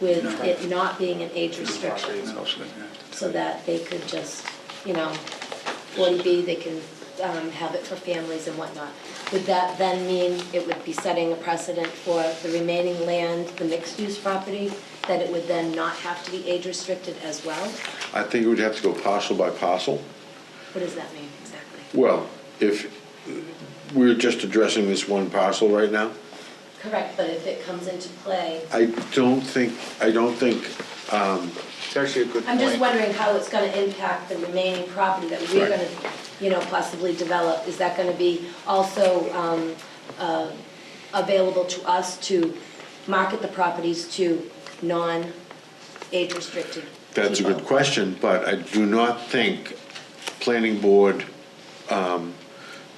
with it not being an age restriction, so that they could just, you know, 40B, they can um, have it for families and whatnot. Would that then mean it would be setting a precedent for the remaining land, the mixed-use property, that it would then not have to be age restricted as well? I think we'd have to go parcel by parcel. What does that mean exactly? Well, if, we're just addressing this one parcel right now. Correct, but if it comes into play, I don't think, I don't think, It's actually a good I'm just point. wondering how it's gonna impact the remaining property that we're Right. gonna, you know, possibly develop. Is that gonna be also um, uh, available to us to market the properties to non-age restricted that's a people? good question, but I do not think planning board um,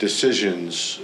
decisions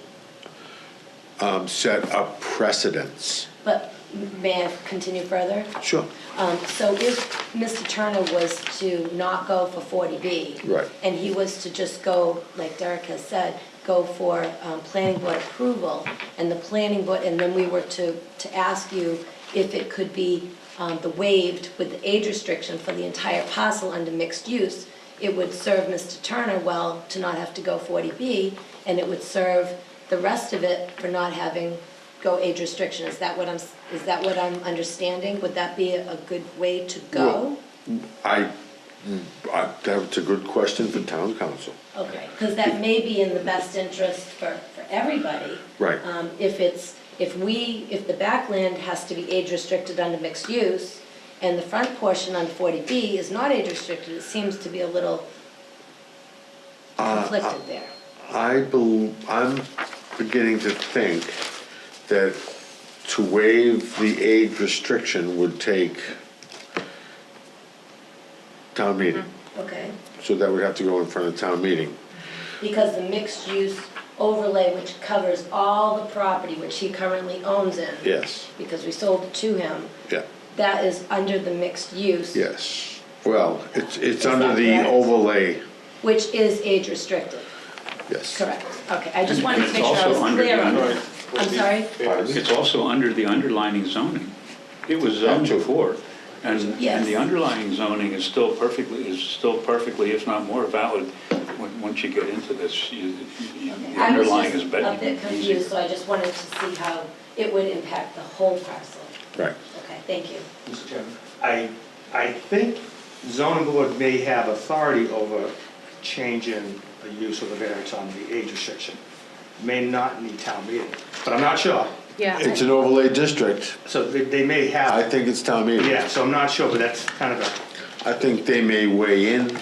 um, set up precedents. But may I continue further? Sure. Um, So if Mr. Turner was to not go for 40B. Right. And he was to just go, like Derek has said, go for um, planning board approval, and the planning board, and then we were to, to ask you if it could be um, the waived with the age restriction for the entire parcel under mixed use, it would serve Mr. Turner well to not have to go 40B, and it would serve the rest of it for not having go age restriction. Is that what I'm, s- is that what I'm understanding? Would that be a good way to go? Well- I, I- that's a good question for town council. Okay, because that may be in the best interest for, for everybody. Right. Um, If it's, if we, if the backland has to be age restricted under mixed use, and the front portion under 40B is not age restricted, it seems to be a little conflicted there. I bel I'm beginning to think that to waive the age restriction would take town meeting, Okay, so that would have to go in front of town meeting. because the mixed use overlay, which covers all the property which he currently owns in. Yes, Because we sold it to him, yeah, that is under the mixed use. yes. Well, it's, Is it's that under the correct? overlay, Which is age restricted. yes. Correct, okay, I just wanted to It's make sure I was also under clear the on under- that. I'm sorry? Pardon? It's also under the underlyning zoning. It was zoned Gotcha. before, and, Yes. and the underlying zoning is still perfectly, is still perfectly, if not more valid, when- once you get into this, you, you- the I was underlying is just better. a bit confused, so I just wanted to see how it would impact the whole parcel. Right. Okay, thank you. Mr. Chairman. I, I think zoning board may have authority over change in the use of the variance on the age restriction. May not need town meeting, but I'm not sure. It's an overlay district. So they, they may I have, think it's town meeting. yeah, so I'm not sure, but that's kind of a, I think they may weigh in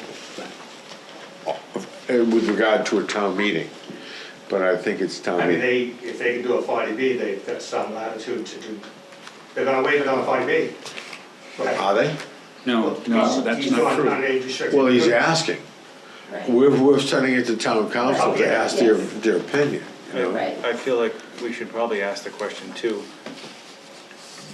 uh, with regard to a town meeting, but I think it's town I mean, meeting. they, if they can do a forty B, they've got some latitude to do, they're gonna waive it on a forty B. Are they? No, uh, no, that's not On true. age restriction. Well, he's asking. Right, We're, we're sending it to town council to ask their, their opinion, you know? Right. I feel like we should probably ask the question too,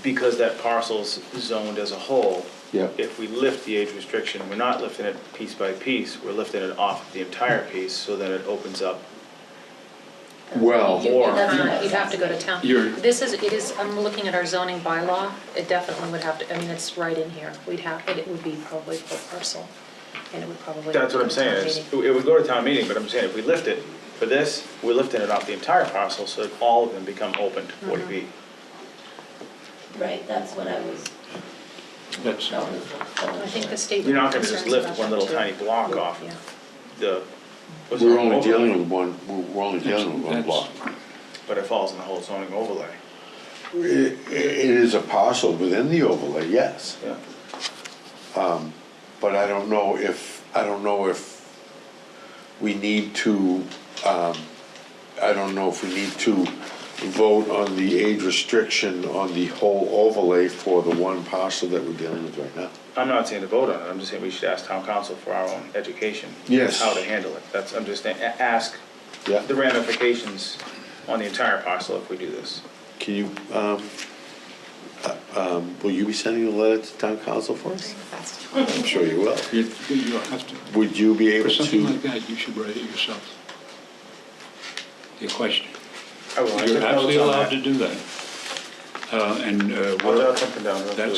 because that parcel's zoned as a whole. Yeah. If we lift the age restriction, we're not lifting it piece by piece, we're lifting it off the entire piece so that it opens up. Well, You- Or- that's not- You'd have to go to town. You're- This is, it is, I'm looking at our zoning bylaw, it definitely would have to, I mean, it's right in here. We'd have, it would be probably per parcel, and it would probably. That's what go I'm to town saying, is, meeting. it would go to town meeting, but I'm saying if we lift it for this, we're lifting it off the entire parcel so that all of them become open to forty B. right, that's what I was That's, going for. I think the state. You're not gonna just concerns lift about one that, little too. tiny block off Yeah. the. what's we're that, only overlay? dealing with one, we're- we're only dealing with one That's- block. But it falls in the whole zoning overlay. It, it is a parcel within the overlay, yes, Yeah. but I don't know if, I don't know if we need to, um, I don't know if we need to vote on the age restriction on the whole overlay for the one parcel that we're dealing with right now. I'm not saying to vote on it, I'm just saying we should ask town council for our own education. Yes. How to handle it, that's, I'm just saying, a- ask Yeah. the ramifications on the entire parcel if we do this. Can you, um, uh, um, will you be sending a letter to town council for us? That's- I'm sure you will. you, you have to, Would you be for able something to? like that, you should write it yourself. Your question. I will, I took You're notes absolutely on allowed that. to do that. Uh, and, uh, I'll we're- jot something down. real that's quick.